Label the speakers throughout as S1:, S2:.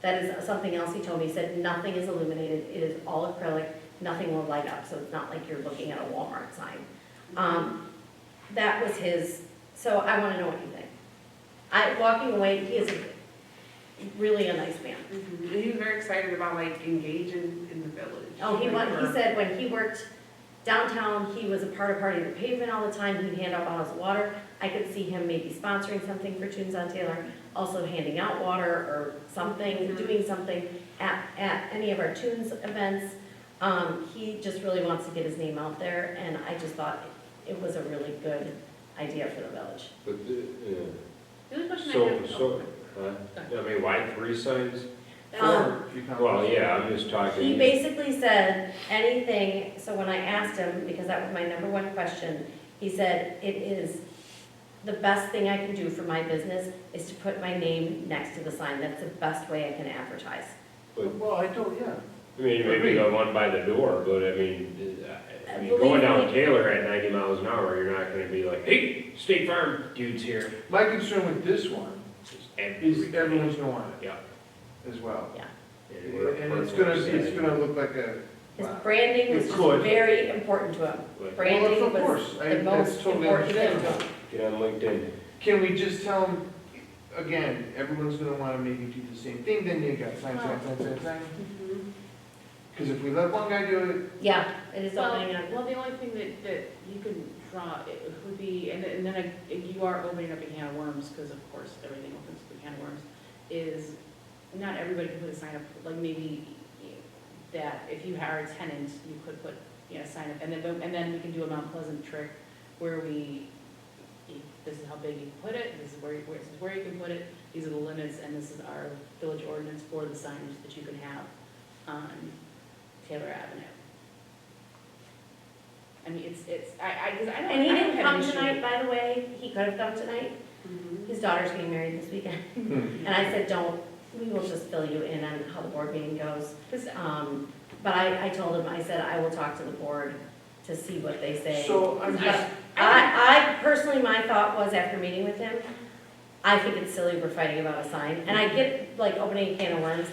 S1: That is something else he told me, he said, nothing is illuminated, it is all acrylic, nothing will light up, so it's not like you're looking at a Walmart sign. Um, that was his, so I wanna know what you think. I, walking away, he is a- really a nice man.
S2: Mhm. And he was very excited about like engaging in the village.
S1: Oh, he
S2: Like,
S1: went, he
S2: for-
S1: said when he worked downtown, he was a part of party of the pavement all the time, he'd hand out bottles of water. I could see him maybe sponsoring something for Tunes on Taylor, also handing out water or something,
S2: Mhm.
S1: doing something at, at any of our Tunes events. Um, he just really wants to get his name out there, and I just thought it was a really good idea for the village.
S3: But, uh,
S4: The only question I
S3: so,
S4: have.
S3: so, huh? I mean, why three signs?
S1: Um,
S3: Well, yeah, I'm just
S1: He
S3: talking,
S1: basically said anything, so when I asked him, because that was my number one question, he said, it is, the best thing I can do for my business is to put my name next to the sign, that's the best way I can advertise.
S5: Well, I don't, yeah.
S3: I mean, maybe the one by the door, but I mean, uh, I mean,
S1: Believe
S3: going down
S1: me.
S3: Taylor at ninety miles an hour, you're not gonna be like, hey, State Farm dude's here.
S5: My concern with this one
S3: It's
S5: is
S3: every-
S5: everyone's gonna want
S3: Yeah.
S5: it as well.
S3: And we're-
S5: And it's gonna, it's gonna look like a.
S1: His
S5: wow.
S1: branding was
S5: It
S1: just
S5: could.
S1: very important to him,
S3: Like,
S5: Well,
S1: branding
S5: of
S1: was
S5: course, I-
S1: the
S5: that's
S1: most
S5: totally
S1: important thing to him.
S5: understandable.
S3: Get on LinkedIn.
S5: Can we just tell them, again, everyone's gonna wanna maybe do the same thing, then you got sign, sign, sign, sign, sign.
S2: Mhm.
S5: Cause if we let one guy do
S1: Yeah, it is
S4: Well,
S1: opening up.
S4: well, the only thing that, that you can draw, it would be, and then, and then I- you are opening up a can of worms, because of course, everything opens up a can of worms, is not everybody can put a sign up, like maybe that if you hire a tenant, you could put, you know, a sign up, and then, and then we can do a Mount Pleasant trick where we, this is how big you can put it, this is where, you- where, this is where you can put it, these are the limits, and this is our village ordinance for the signage that you can have on Taylor Avenue. I mean, it's, it's, I, I, because I don't,
S1: And he
S4: I don't
S1: didn't
S4: have
S1: come
S4: an issue.
S1: tonight, by the way, he could have come tonight,
S2: Mhm.
S1: his daughter's getting married this weekend.
S5: it, hmm.
S1: And I said, don't, we will just fill you in on how the board meeting goes.
S4: 'Cause
S1: Um, But I, I told him, I said, I will talk to the board to see what they say.
S5: so I'm just,
S1: I, I personally, my thought was after meeting with him, I think it's silly we're fighting about a sign, and I get like opening a can of worms.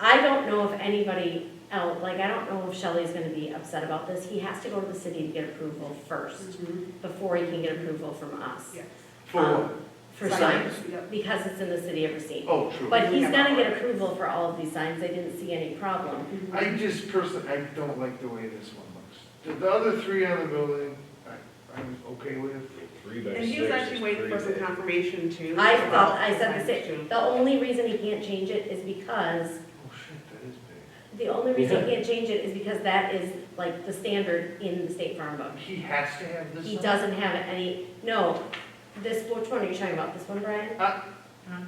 S1: I don't know if anybody else, like, I don't know if Shelley's gonna be upset about this, he has to go to the city to get approval first,
S2: Mhm.
S1: before he can get approval from us. Um,
S2: Yeah.
S5: Mm-hmm. for what?
S1: For
S5: For
S1: signs,
S2: Yep.
S1: because it's in the city of Racine.
S5: Oh, true.
S1: But he's gonna get approval for all of these signs, they didn't see any problem.
S5: I just personally, I don't like the way this one looks. The, the other three on the building, I, I'm okay with.
S3: Three by
S2: And he
S3: six
S2: was
S3: is
S2: actually waiting for some
S3: pretty big.
S2: confirmation too.
S1: I
S2: about
S1: felt, I said the
S2: signage,
S1: same,
S2: too.
S1: the only reason he can't change it is because,
S5: Oh shit, that is big.
S1: the only reason he can't change it is because that is like the standard in the state farm book.
S5: He has to have this
S1: He
S5: one?
S1: doesn't have any, no, this, which one are you talking about, this one, Brian?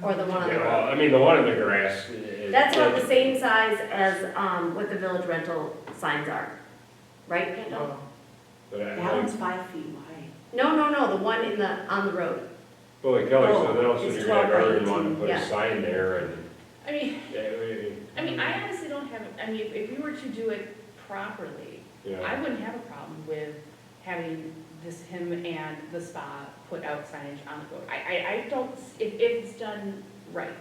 S1: Or the one on the
S3: Yeah,
S1: road?
S3: well, I mean, the one in the grass. is-
S1: That's about the same size as, um, what the village rental signs are, right, Kendall?
S5: No.
S3: But uh, I,
S2: That one's five feet wide.
S1: No, no, no, the one in the, on the road,
S3: Holy Kelly, so
S1: Oh,
S3: then also
S1: it's
S3: you're gonna
S1: 12 by
S3: garden one
S1: 18,
S3: and put
S1: yeah.
S3: a sign there and.
S4: I mean, I mean,
S3: Yeah.
S4: I honestly don't have, I mean, if, if we were to do it properly, I wouldn't have a problem with having this, him and the spa put out signage on the book. I, I, I don't, s- if, if it's done right,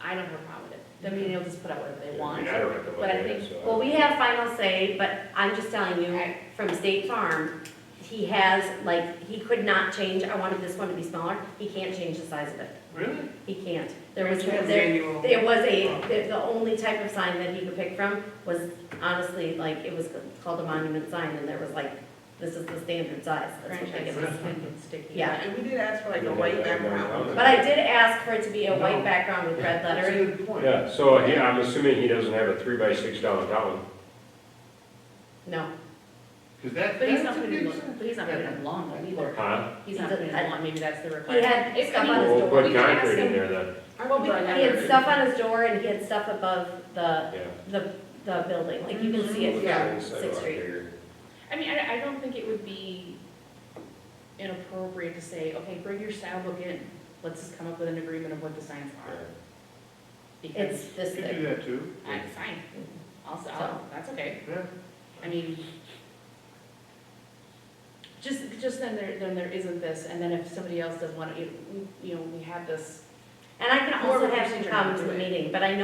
S4: I don't have a problem with it. I mean, they'll just put out whatever
S3: Yeah,
S4: they
S3: I
S4: want.
S3: mean, I don't have to look
S4: but I
S3: at it,
S4: think-
S3: so I-
S1: Well, we have final say, but I'm just telling you,
S4: Right.
S1: from State Farm, he has, like, he could not change, I wanted this one to be smaller, he can't change the size of it.
S5: Really?
S1: He can't. There was,
S2: That's
S1: there,
S2: manual.
S1: there was a, the- the only type of sign that he could pick from was honestly, like, it was called a monument sign, and there was like, this is the standard size, that's what they give us.
S4: Franchise is sticky.
S1: Yeah.
S2: And we did ask for like a white background.
S1: But I did ask for it to be a white
S5: No.
S1: background with red
S5: That's a
S1: lettering.
S5: good point.
S3: Yeah, so he, I'm assuming he doesn't have a three by six downtown.
S1: No,
S5: Cause that,
S4: But he's not
S5: that's a
S4: putting, it
S5: big
S4: in- but he's not putting it in long though either.
S3: Huh?
S4: He's not putting it in long, maybe that's the
S1: he
S4: requirement.
S1: had
S4: It's- I
S1: stuff
S4: mean,
S1: on his
S3: We'll
S1: door.
S3: put
S4: we can ask
S3: concrete in
S4: him-
S3: there then,
S4: Well, we-
S1: He had stuff on his door, and he had stuff above the
S3: yeah.
S1: the, the building, like you can see
S3: Mm-hmm.
S1: it
S2: Yeah.
S1: from Sixth Street.
S4: I mean, I, I don't think it would be inappropriate to say, okay, bring your style book in, let's just come up with an agreement of what the signs are. Because,
S1: It's this
S5: You could do
S1: big.
S5: that too,
S4: I, fine, I'll, I'll, that's okay,
S5: yeah.
S4: I mean, just, just then there, then there isn't this, and then if somebody else doesn't want to, you know, we have this
S1: And I can
S4: Or
S1: also
S4: we
S1: have
S4: can
S1: him
S4: turn
S1: come
S4: it
S1: to
S4: to
S1: the
S4: it.
S1: meeting, but I know